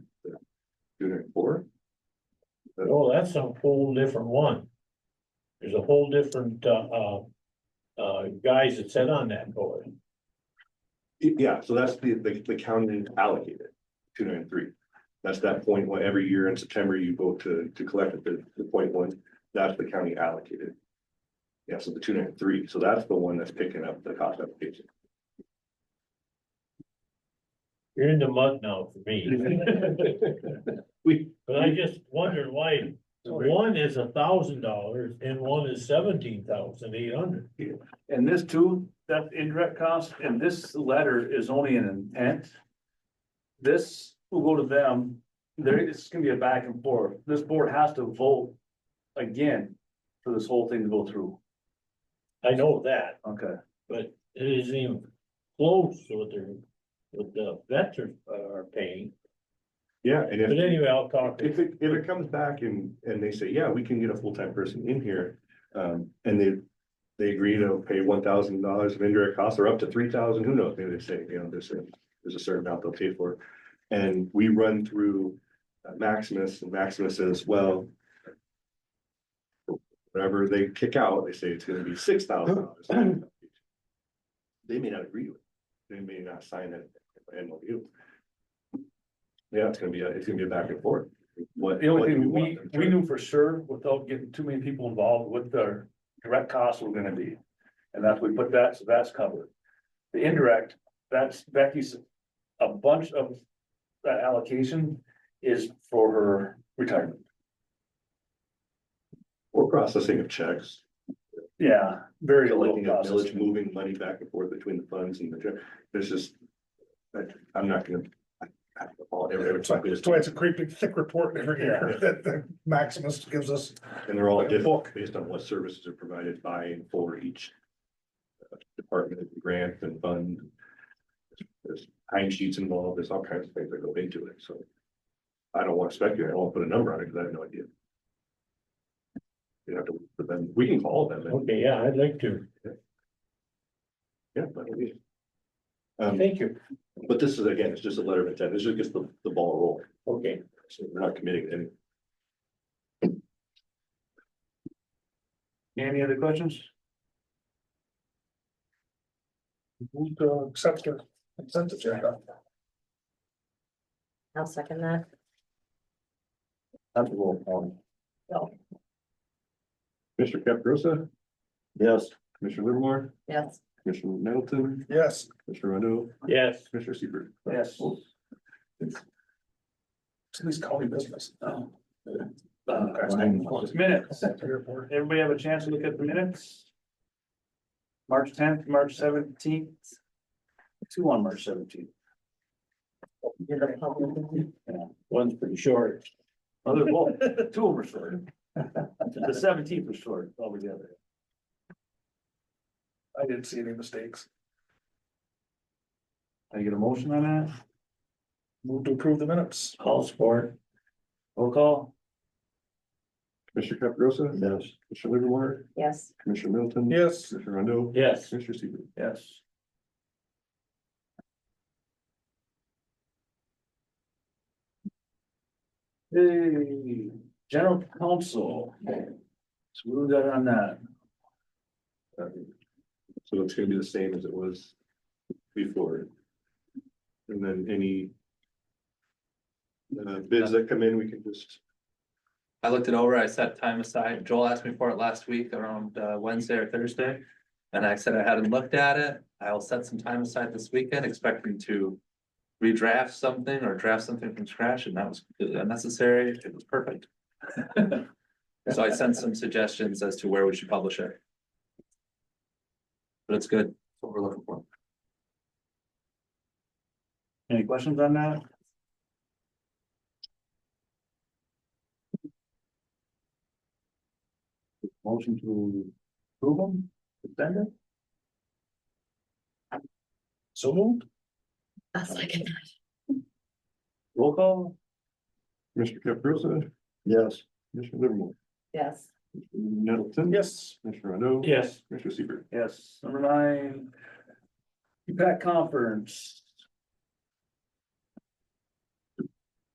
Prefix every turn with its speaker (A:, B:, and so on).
A: oh, that's a whole different one. There's a whole different, uh, uh, uh, guys that sit on that board.
B: Y- Yeah, so that's the, the, the county allocated, two nine three. That's that point one, every year in September you go to, to collect at the, the point one, that's the county allocated. Yeah, so the two nine three, so that's the one that's picking up the cost application.
A: You're in the mud now for me.
B: We,
A: But I just wondered why one is a thousand dollars and one is seventeen thousand eight hundred.
C: And this too, that indirect cost, and this letter is only an intent. This will go to them, there is gonna be a back and forth, this board has to vote again for this whole thing to go through,
A: I know that,
C: okay?
A: but it isn't even close to what they're, what the vets are, are paying.
B: yeah, and
A: But
B: if,
A: anyway, I'll talk to
B: if it, if it comes back and, and they say, yeah, we can get a full-time person in here. Um, and they, they agree to pay one thousand dollars of indirect costs or up to three thousand, who knows, maybe they say, you know, there's a, there's a certain amount they'll pay for. And we run through uh, Maximus and Maximus says, well. Whatever they kick out, they say it's gonna be six thousand dollars. They may not agree with, it. they may not sign that MOU. Yeah, it's gonna be, a- it's gonna be a back and forth. What,
C: The
B: what do
C: only
B: you
C: thing
B: want
C: we,
B: them to
C: we
B: do?
C: knew for sure, without getting too many people involved, what their direct costs were gonna be. And that's, we put that, so that's covered. The indirect, that's Becky's, a bunch of that allocation is for her retirement.
B: Or processing of checks.
C: Yeah, very low
B: collecting a
C: cost.
B: village, moving money back and forth between the funds and the, gen- there's just. I, I'm not gonna. I- I- all- every- every
D: That's why
B: time goes
D: that's
B: to-
D: why it's a creeping thick report every year that the Maximus gives us.
B: And they're all
D: like a
B: different
D: book.
B: based on what services are provided by and for each. uh, Department, grant and fund. There's time sheets involved, there's all kinds of things that go into it, so. I don't wanna speculate, I don't wanna put a number on it, cause I have no idea. You have to, but then we can call them and,
A: Okay, yeah, I'd like to.
B: yeah, but. we- Um,
A: Thank you.
B: But this is, again, it's just a letter of intent, this just gets the, the ball rolling,
A: Okay.
B: so we're not committing any.
C: Any other questions?
D: Move to accept the consent agenda.
E: I'll second that.
B: That's a roll call.
E: No.
B: Mr. Caprosa,
C: Yes.
B: Commissioner Livermore,
E: Yes.
B: Commissioner Middleton,
D: Yes,
B: Mr. Rondo,
A: Yes,
B: Commissioner Seaver.
C: Yes.
D: please call me business.
C: Uh, Minutes,
D: Airport.
C: everybody have a chance to look at the minutes? March tenth, March seventeenth. Two on March seventeenth.
E: You're the public.
A: one's pretty short.
C: Other, well, two of them were short. The seventeenth was short altogether.
D: I didn't see any mistakes.
C: Can I get a motion on that?
D: Move to approve the minutes.
A: All support.
C: Roll call?
B: Commissioner Caprosa,
A: Yes.
B: Commissioner Livermore,
E: Yes,
B: Commissioner Middleton.
D: Yes,
B: Commissioner Rondo.
A: Yes,
B: Commissioner Seaver.
C: Yes. Hey, general counsel. So what we got on that?
B: Um, So it's gonna be the same as it was before. And then any. Uh, bids that come in, we can just
F: I looked it over, I set time aside, Joel asked me for it last week around uh, Wednesday or Thursday. And I said I hadn't looked at it, I'll set some time aside this weekend expecting to. Redraft something or draft something from scratch and that was completely unnecessary, it was perfect. So I sent some suggestions as to where we should publish it. But it's good, that's what we're looking for.
C: Any questions on that? Motion to approve them, defend it?
D: so moved.
E: I'll second that.
C: roll call?
B: Mr. Caprosa? Yes. Mr. Livermore?
E: Yes.
B: Nettleton?
D: Yes,
B: Mr. Rondo?
A: yes.
B: Mr. Seaver?
C: Yes, number nine. CPAC conference.